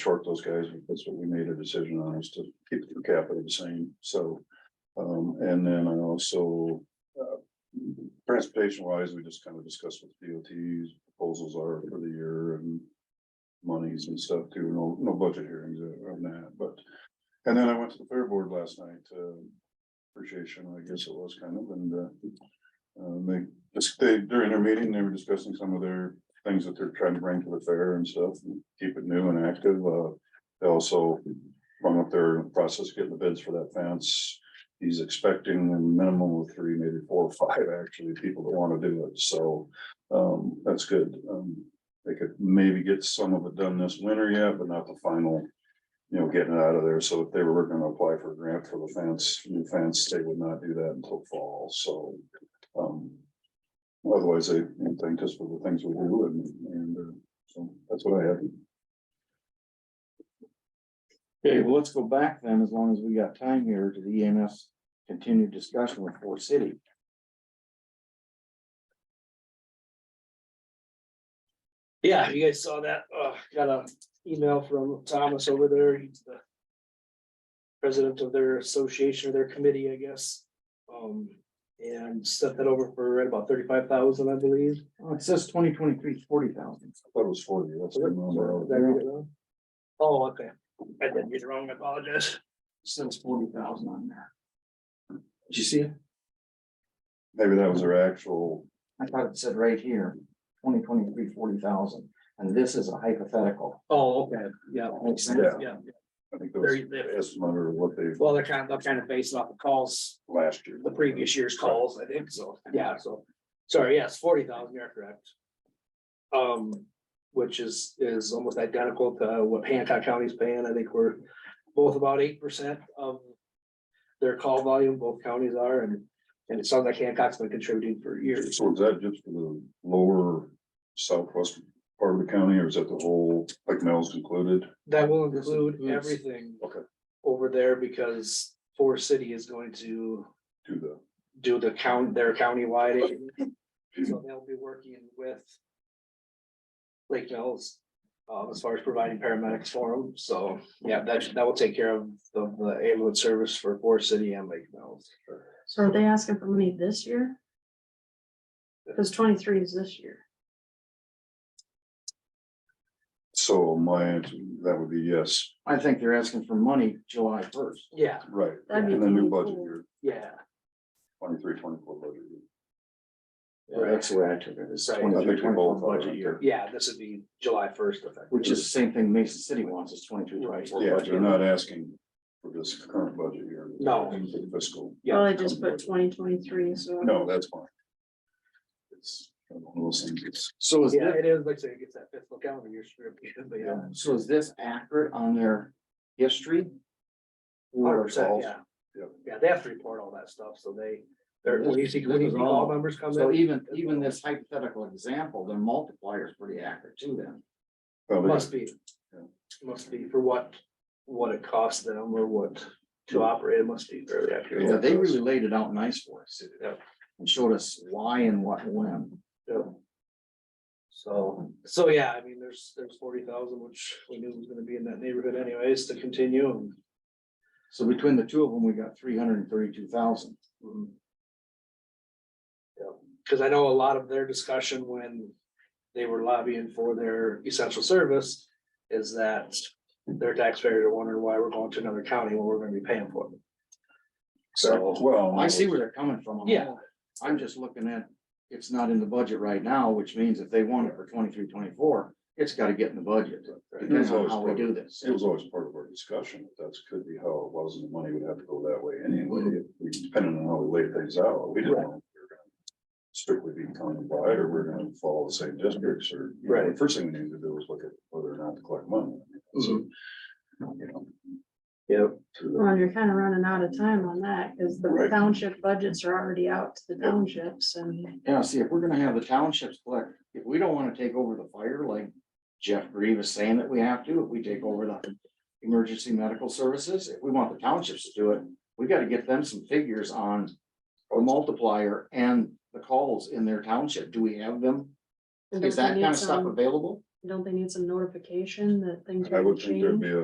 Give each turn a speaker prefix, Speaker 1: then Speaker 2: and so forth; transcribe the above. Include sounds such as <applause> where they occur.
Speaker 1: short those guys. That's what we made a decision on is to keep the per capita the same. So. Um, and then I also, uh, transportation wise, we just kind of discussed what DOT's proposals are for the year and. Monies and stuff too. No, no budget hearings on that, but. And then I went to the fair board last night, uh, appreciation, I guess it was kind of, and, uh. Um, they, this, they, during their meeting, they were discussing some of their things that they're trying to bring to the fair and stuff, and keep it new and active, uh. They also run up their process, of getting the bids for that fence. He's expecting a minimum of three, maybe four or five, actually, people that wanna do it, so, um, that's good. Um, they could maybe get some of it done this winter yet, but not the final. You know, getting it out of there, so if they were gonna apply for a grant for the fence, new fence, they would not do that until fall, so, um. Otherwise, they thank us for the things we do and, and, uh, so that's what I have.
Speaker 2: Okay, well, let's go back then, as long as we got time here, to the EMS continued discussion with Fort City.
Speaker 3: Yeah, you guys saw that, uh, got a email from Thomas over there, he's the. President of their association or their committee, I guess, um, and set that over for right about thirty-five thousand, I believe.
Speaker 2: Oh, it says twenty twenty-three, forty thousand.
Speaker 1: I thought it was forty, that's the number.
Speaker 3: Did I read it wrong? Oh, okay, I did read it wrong, I apologize.
Speaker 2: Says forty thousand on there. Did you see it?
Speaker 1: Maybe that was their actual,
Speaker 2: I thought it said right here, twenty twenty-three, forty thousand, and this is a hypothetical.
Speaker 3: Oh, okay, yeah,
Speaker 2: Makes sense.
Speaker 1: yeah,
Speaker 3: yeah,
Speaker 1: I think that was
Speaker 3: very,
Speaker 1: the estimate or what they
Speaker 3: well, they're kind of, they're kind of based off the calls,
Speaker 1: last year.
Speaker 3: the previous year's calls, I think, so, yeah, so. Sorry, yes, forty thousand, you're correct. Um, which is, is almost identical to what Hancock County's paying, I think we're both about eight percent of. Their call volume, both counties are, and, and it sounds like Hancock's been contributing for years.
Speaker 1: So is that just for the lower southwest part of the county or is that the whole, like Mel's included?
Speaker 3: That will
Speaker 2: This
Speaker 3: include
Speaker 2: includes-
Speaker 3: everything.
Speaker 1: Okay.
Speaker 3: Over there, because Forest City is going to
Speaker 1: To the,
Speaker 3: do the count, their countywide. <laughs> agent. So they'll be working with. Lake Mills, um, as far as providing paramedics for them, so, yeah, that, should- that will take care of the, the ambulance service for Forest City and Lake Mills.
Speaker 4: So are they asking for money this year? Cause twenty-three is this year.
Speaker 1: so my, answer that would be yes,
Speaker 2: I think they're asking for money July first.
Speaker 3: Yeah,
Speaker 1: right,
Speaker 4: That'd be
Speaker 1: and the new budget
Speaker 4: 24.
Speaker 1: year,
Speaker 3: yeah,
Speaker 1: twenty-three, twenty-four budget year.
Speaker 2: That's the way I took it, it's
Speaker 3: Right. I
Speaker 1: I think
Speaker 2: 23,
Speaker 1: we both
Speaker 2: 24
Speaker 1: are.
Speaker 2: budget year,
Speaker 3: yeah, this would be July first effective.
Speaker 2: which is the same thing Mason City wants, is twenty-two, twenty-four.
Speaker 1: Yeah,
Speaker 2: budget
Speaker 1: they're
Speaker 2: year.
Speaker 1: not asking for this current budget year.
Speaker 3: No.
Speaker 1: Fiscal,
Speaker 3: Yeah.
Speaker 2: uh,
Speaker 4: Well, I just put twenty twenty-three, so.
Speaker 1: no, that's fine. It's one of those things, it's-
Speaker 2: So is
Speaker 3: Yeah,
Speaker 2: that,
Speaker 3: it is, like I say, it gets that fiscal calendar year script, <laughs> but yeah.
Speaker 2: Um, so is this accurate on their history?
Speaker 3: Hundred
Speaker 2: Or
Speaker 3: percent,
Speaker 2: all-
Speaker 3: yeah.
Speaker 1: Yep.
Speaker 3: Yeah, they have to report all that stuff, so they, they're,
Speaker 2: This-
Speaker 3: when you see, when
Speaker 2: this
Speaker 3: you
Speaker 2: is
Speaker 3: see
Speaker 2: all-
Speaker 3: all members come
Speaker 2: So
Speaker 3: in.
Speaker 2: even, even this hypothetical example, the multiplier is pretty accurate too then.
Speaker 1: well, they-
Speaker 3: Must be.
Speaker 1: Yeah.
Speaker 3: Must be for what, what it costs them or what to operate, it must be fairly accurate.
Speaker 2: Yeah, they really laid it out nice for us
Speaker 3: Yeah.
Speaker 2: and showed us why and what and when.
Speaker 3: Yeah. So, so yeah, I mean, there's, there's forty thousand, which we knew was gonna be in that neighborhood anyways to continue and.
Speaker 2: So between the two of them, we got three hundred and thirty-two thousand.
Speaker 3: mm. Yeah, Cause I know a lot of their discussion when they were lobbying for their essential service is that their taxpayers are wondering why we're going to another county when we're gonna be paying for it. So-
Speaker 1: Well.
Speaker 2: I see where they're coming from. on
Speaker 3: Yeah.
Speaker 2: that. I'm just looking at, it's not in the budget right now, which means if they want it for twenty-three, twenty-four, it's gotta get in the budget. Depends on how we do this.
Speaker 1: It was always part of our discussion, that's could be how it was, and the money would have to go that way anyway, if we- depending on how we laid things out, we didn't
Speaker 3: Right.
Speaker 1: know. if we were gonna Strictly be countywide, or we're gonna follow the same districts, or. you know,
Speaker 3: Right.
Speaker 1: the First thing we needed to do was look at whether or not to collect money. So,
Speaker 3: Mm-hmm.
Speaker 1: you know,
Speaker 3: Yep.
Speaker 4: Well, you're kinda running out of time on that, cause the
Speaker 1: Right.
Speaker 4: township budgets are already out to the townships and.
Speaker 2: Yeah, see, if we're gonna have the townships collect, if we don't wanna take over the fire like Jeff Grieve is saying that we have to, if we take over the. Emergency medical services, if we want the townships to do it, we gotta get them some figures on. A multiplier and the calls in their township, do we have them?
Speaker 4: and
Speaker 2: Is
Speaker 4: don't
Speaker 2: that kind
Speaker 4: we need
Speaker 2: of stuff
Speaker 4: some-
Speaker 2: available?
Speaker 1: Don't they need some notification that things are
Speaker 4: I
Speaker 1: gonna
Speaker 4: would think there'd
Speaker 1: change?
Speaker 4: be a